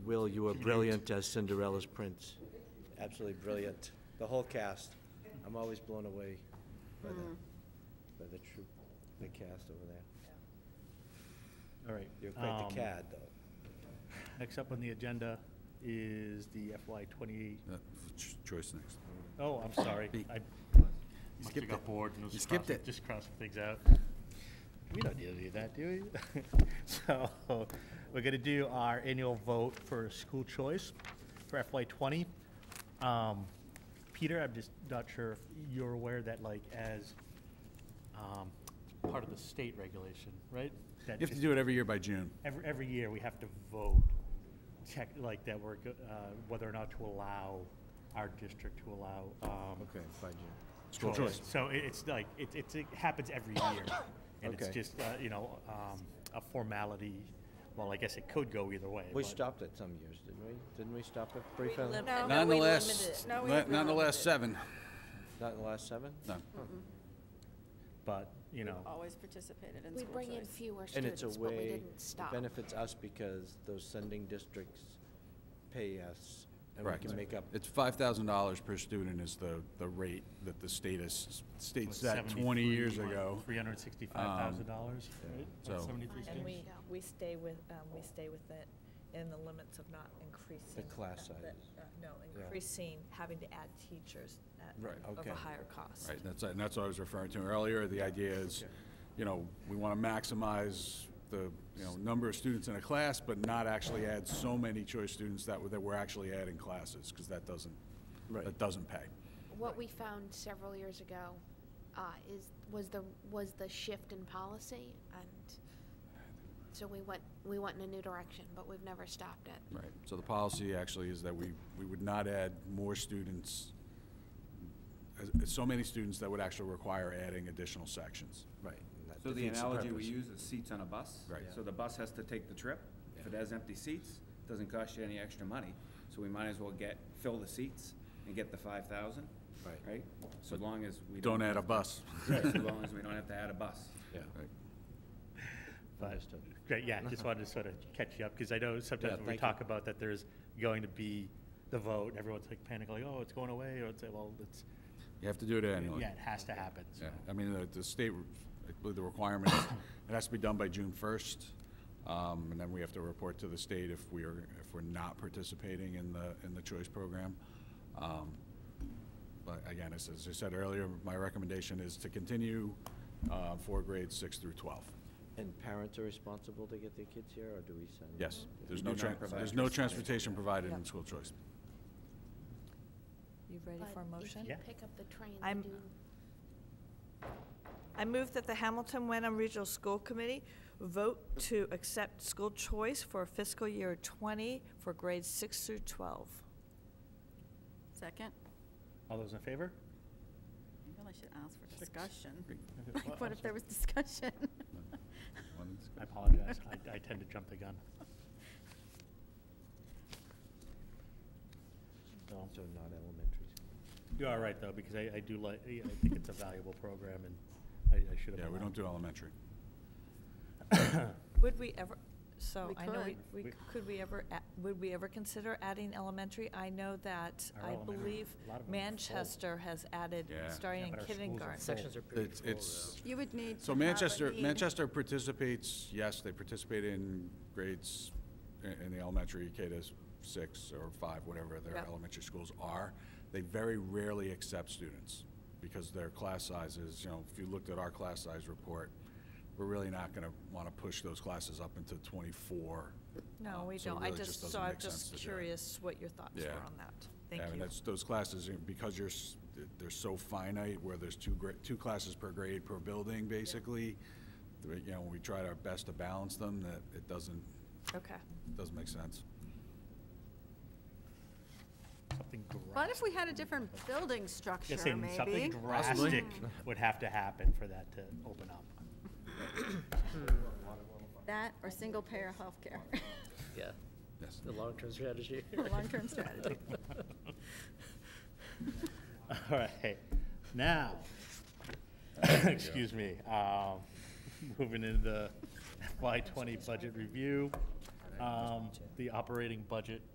Will, you were brilliant as Cinderella's prince. Absolutely brilliant. The whole cast. I'm always blown away by the, Mm-hmm. by the troop, the cast over there. All right. You're quite um, the cad, though. Next up on the agenda is the FY twenty, Uh, Ch- Choice next. oh, I'm sorry. Be- I must have skipped got it. bored and was You just skipped crossing, it. just crossing things out. We don't need to do that, do we? So, we're gonna do our annual vote for school choice for FY twenty. Um, Peter, I'm just not sure if you're aware that like as, um, part of the state regulation, right? That You have to do it every year by June. every, every year we have to vote, check like that we're, go- uh, whether or not to allow our district to allow, um, Okay, fine, Jim. School choice. choice. So it, it's like, it, it's, it happens every year. And it's Okay. just, uh, you know, um, a formality, well, I guess it could go either way. We but- stopped it some years, didn't we? Didn't we stop it We briefly? lim- No. no, we Nonetheless, limited it. No, we not- have to nonetheless, limit it. seven. Not in the last seven? No. But, you know, Always participated in We school bring in choice. fewer And it's students, a but we way, didn't it stop. benefits us because those sending districts pay us, and we Correct. can make up. It's five thousand dollars per student is the, the rate that the state is, state set twenty years ago. Um, Three hundred and sixty-five thousand dollars, right? so- Like 73 And students. we, we stay with, um, we stay with it in the limits of not increasing. class that- that- sizes. uh, No, Yeah. increasing, having to add teachers at, Right, of okay. a higher cost. Right, that's, and that's what I was referring to earlier. The idea is, you know, we want to maximize the, you know, number of students in a class, but not actually add so many choice students that, we're- that we're actually adding classes, because that doesn't, Right. that doesn't pay. What we found several years ago, uh, is, was the, was the shift in policy, and so we went, we went in a new direction, but we've never stopped it. Right, so the policy actually is that we, we would not add more students, as- so many students that would actually require aadding additional sections. Right. and that So the defeats analogy we purpose. use is seats on a bus. Right. So the bus has to take the trip. If it has empty seats, doesn't cost you any extra money. So we might as well get, fill the seats and get the five thousand. Right. Right? So as long as we don't. Don't add a bus. Right, so long as we don't have to add a bus. Yeah. Right. But- Understood. Great, yeah, Uh-huh. just wanted to sort of catch you up, because I know Yeah, sometimes when we thank talk you. about that there's going to be the vote, and everyone's like panicking, like, oh, it's going away, or it's, well, it's, You have to do it annually. yeah, it has to happen, so. Yeah, I mean, the, the state, re- I believe the requirement, is it has to be done by June first. Um, and then we have to report to the state if we are, if we're not participating in the, in the choice program. Um, But again, as, as I said earlier, my recommendation is to continue, uh, for grades six through twelve. And parents are responsible to get their kids here, or do we send? Yes, there's We no, do not tran- provide there's no transportation. transportation provided in school choice. You ready But for a If motion? you Yeah. pick up the train, they I'm- do I move that the Hamilton Wenham Regional School Committee vote to accept school choice for fiscal year 20 for grades 6 through 12. Second? All those in favor? I really should ask for Six. discussion. Great. Like, Well, What I'm if there was discussion? One discussion. I apologize, I, I tend to jump the gun. So, So not elementary school. You're all right, though, because I, I do like, I think it's a valuable program, and I, I should have. Yeah, we allowed don't do elementary. Would we ever, so We I know, we- could. we, We- could we ever, a- would we ever consider adding elementary? I know that, Our I elementary- believe a lot of them are full. Manchester has added, Yeah. Yeah, starting in but our schools are kindergarten. full. It's, it's, You would need to So have a Manchester, need. Manchester participates, yes, they participate in grades i- in the elementary, K to s- six or five, whatever their Yep. elementary schools are. They very rarely accept students because their class sizes, you know, if you looked at our class size report, we're really not going to want to push those classes up into 24. No, um, we so it don't. I really just, doesn't so I'm make sense just to do it. curious what your thoughts were Yeah. on that. Yeah, Thank I mean, you. that's, those classes, you know, because you're, s- they're so finite, where there's two, gra- two classes per grade per building, basically, the- you know, we tried our best to balance them, that it doesn't, Okay. doesn't make sense. Something drastic. What if we had a different building structure, Just saying, something maybe? drastic would have to happen for that to open up. That or single-payer healthcare, Yeah, Yes. the long-term strategy. a long-term strategy. All right, now, excuse me, um, moving into the FY twenty budget review. um, the operating budget